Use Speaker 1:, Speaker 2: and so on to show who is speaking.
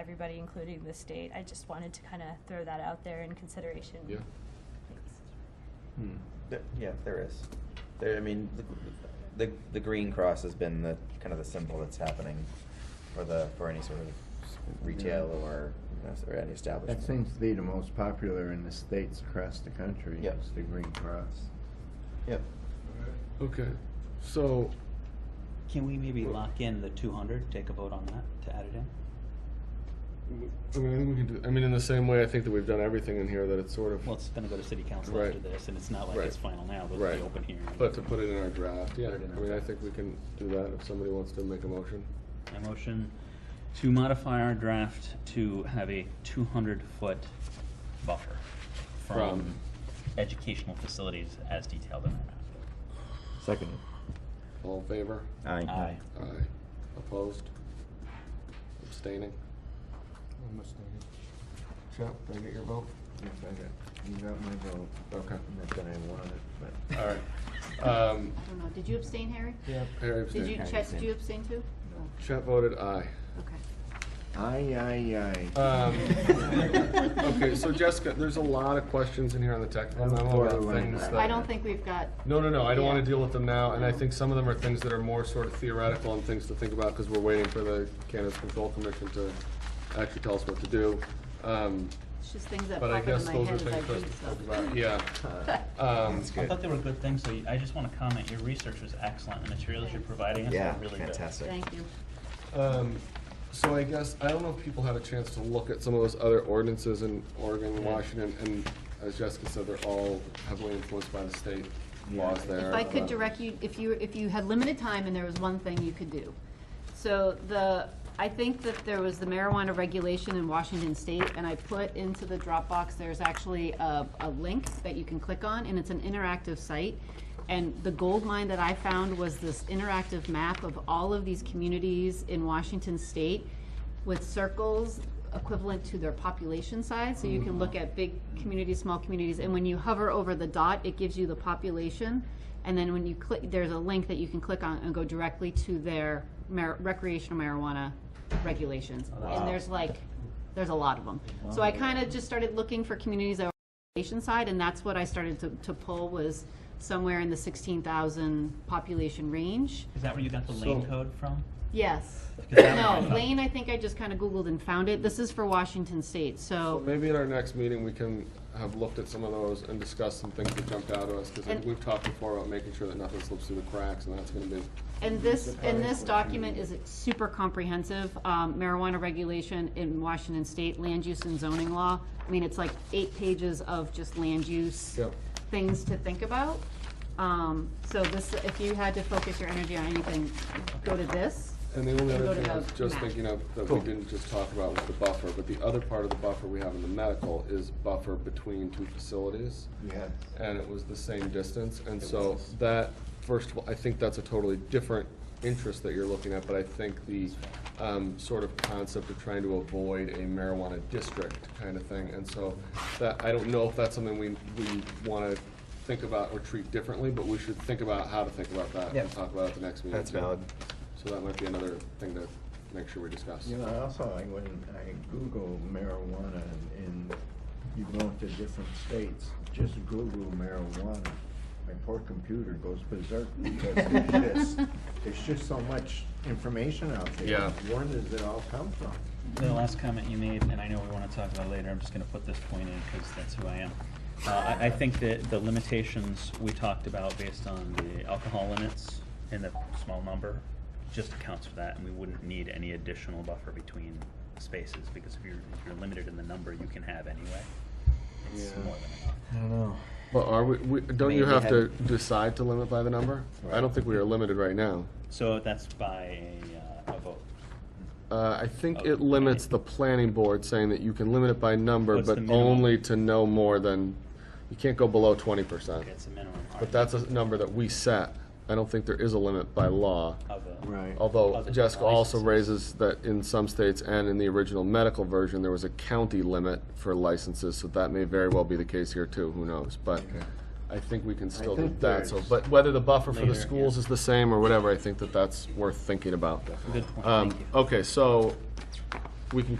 Speaker 1: everybody, including the state. I just wanted to kind of throw that out there in consideration.
Speaker 2: Yeah.
Speaker 1: Thanks.
Speaker 2: Hmm.
Speaker 3: There- Yeah, there is. There, I mean, the, the, the green cross has been the, kind of the symbol that's happening for the, for any sort of retail or, you know, or any establishment.
Speaker 4: That seems to be the most popular in the states across the country,
Speaker 3: Yep.
Speaker 4: is the green cross.
Speaker 3: Yep.
Speaker 2: Okay, so,
Speaker 5: Can we maybe lock in the two hundred, take a vote on that to add it in?
Speaker 2: I mean, I think we can do, I mean, in the same way, I think that we've done everything in here that it's sort of,
Speaker 5: Well, it's gonna go to city council
Speaker 2: Right.
Speaker 5: after this, and it's not like
Speaker 2: Right.
Speaker 5: it's final now, there'll
Speaker 2: Right.
Speaker 5: be open hearing.
Speaker 2: but to put it in our draft, yeah,
Speaker 5: Put it in
Speaker 2: I
Speaker 5: our
Speaker 2: mean, I
Speaker 5: draft.
Speaker 2: think we can do that if somebody wants to make a motion.
Speaker 5: I motion to modify our draft to have a two hundred foot buffer from
Speaker 2: From-
Speaker 5: educational facilities as detailed in our map.
Speaker 4: Second.
Speaker 2: All in favor?
Speaker 4: Aye.
Speaker 2: Aye. Opposed? Abstaining? I'm abstaining. Shep, did I get your vote?
Speaker 4: You got my vote.
Speaker 2: Okay.
Speaker 4: Not that I want it, but.
Speaker 2: All right. Um,
Speaker 6: I don't know, did you abstain, Harry?
Speaker 2: yeah, Harry
Speaker 6: Did you,
Speaker 2: abstained.
Speaker 6: Chet, did you abstain too? Oh,
Speaker 2: Shep voted aye.
Speaker 6: Okay.
Speaker 4: Aye, aye, aye.
Speaker 2: Um, okay, so Jessica, there's a lot of questions in here on the technical memo about things that.
Speaker 6: I don't think we've got,
Speaker 2: No, no, no, I don't wanna
Speaker 6: Yeah.
Speaker 2: deal with them now, and I think some of them are things that are more sort of theoretical and things to think about, cause we're waiting for the Cannabis Control Commission to actually tell us what to do. Um,
Speaker 6: it's just things that
Speaker 2: but I
Speaker 6: pop into
Speaker 2: guess
Speaker 6: my
Speaker 2: those
Speaker 6: head
Speaker 2: are
Speaker 6: as I
Speaker 2: things for us
Speaker 6: read
Speaker 2: to
Speaker 6: stuff.
Speaker 2: think about, yeah.
Speaker 4: Uh,
Speaker 2: Um,
Speaker 3: That's
Speaker 5: I
Speaker 3: good.
Speaker 5: thought they were good things, so I just wanna comment, your research was excellent, the materials you're providing us
Speaker 3: Yeah,
Speaker 5: are really good.
Speaker 3: fantastic.
Speaker 6: Thank you.
Speaker 2: Um, so I guess, I don't know if people had a chance to look at some of those other ordinances in Oregon,
Speaker 5: Yeah.
Speaker 2: Washington, and as Jessica said, they're all heavily influenced by the state laws there.
Speaker 6: If I could
Speaker 2: about-
Speaker 6: direct you, if you, if you had limited time and there was one thing you could do. So the, I think that there was the marijuana regulation in Washington State, and I put into the Dropbox, there's actually a, a link that you can click on, and it's an interactive site. And the gold mine that I found was this interactive map of all of these communities in Washington State with circles equivalent to their population size, so you can look at big communities, small communities, and when you hover over the dot, it gives you the population. And then when you click, there's a link that you can click on and go directly to their mar- recreational marijuana regulations. And there's like, there's a lot of them. So I kind of just started looking for communities that were population side, and that's what I started to, to pull was somewhere in the sixteen thousand population range.
Speaker 5: Is that where you got the lane
Speaker 2: So-
Speaker 5: code from?
Speaker 6: Yes.
Speaker 5: that
Speaker 6: No,
Speaker 5: was-
Speaker 6: Lane, I think I just kind of Googled and found it. This is for Washington State,
Speaker 2: So
Speaker 6: so,
Speaker 2: Maybe at our next meeting, we can have looked at some of those and discuss some things that jumped out to us, because
Speaker 6: And-
Speaker 2: we've talked before about making sure that nothing slips through the cracks, and that's gonna be,
Speaker 6: and this, and this document is super comprehensive. Um, Marijuana regulation in Washington State, land use and zoning law. I mean, it's like eight pages of just land use
Speaker 2: Yep.
Speaker 6: things to think about. Um, So this, if you had to focus your energy on anything, go to this.
Speaker 2: and the only
Speaker 6: We'll
Speaker 2: other
Speaker 6: go to
Speaker 2: thing I was
Speaker 6: the
Speaker 2: just
Speaker 6: map.
Speaker 2: thinking of, that we didn't just talk about was the buffer, but the other part of the buffer we have in the medical is buffer between two facilities.
Speaker 4: Yes.
Speaker 2: and it was the same distance, and so that, first of all, I think that's a totally different interest that you're looking at, but I think the, um, sort of concept of trying to avoid a marijuana district kind of thing, and so that, I don't know if that's something we, we wanna think about or treat differently, but we should think about how to think about that
Speaker 4: Yeah.
Speaker 2: and talk about it at the next meeting.
Speaker 3: That's
Speaker 2: too.
Speaker 3: valid.
Speaker 2: So that might be another thing to make sure we discuss.
Speaker 4: You know, I also, I went, and I Googled marijuana and- and you go into different states, just Google marijuana. My poor computer goes berserk because it's just, there's just so much information out there.
Speaker 2: Yeah.
Speaker 4: Where does it all come from?
Speaker 5: The last comment you made, and I know we want to talk about it later, I'm just going to put this point in because that's who I am. Uh, I, I think that the limitations we talked about based on the alcohol limits and the small number just accounts for that, and we wouldn't need any additional buffer between spaces because if you're, if you're limited in the number you can have anyway, it's more than enough.
Speaker 4: I don't know.
Speaker 2: But are we, we, don't you
Speaker 4: Maybe
Speaker 2: have to
Speaker 4: had-
Speaker 2: decide to limit by the number? I don't think we are limited right now.
Speaker 5: So that's by a, uh, a vote.
Speaker 2: Uh, I think
Speaker 5: Okay.
Speaker 2: it limits the planning board, saying that you can limit it by number,
Speaker 5: What's
Speaker 2: but
Speaker 5: the minimum?
Speaker 2: only to no more than, you can't go below twenty percent.
Speaker 5: It's a minimum
Speaker 2: But that's a number that we set. I don't think there is a limit by law.
Speaker 5: of a.
Speaker 4: Right.
Speaker 2: Although
Speaker 5: Other
Speaker 2: Jessica also
Speaker 5: licenses.
Speaker 2: raises that in some states and in the original medical version, there was a county limit for licenses, so that may very well be the case here too, who knows? But I think we can still do
Speaker 4: think
Speaker 2: that, so,
Speaker 4: there's-
Speaker 2: but whether the buffer for
Speaker 5: Later,
Speaker 2: the
Speaker 5: yeah.
Speaker 2: schools is the same or whatever, I think that that's worth thinking about.
Speaker 5: Good point,
Speaker 2: Um,
Speaker 5: thank you.
Speaker 2: Okay, so we can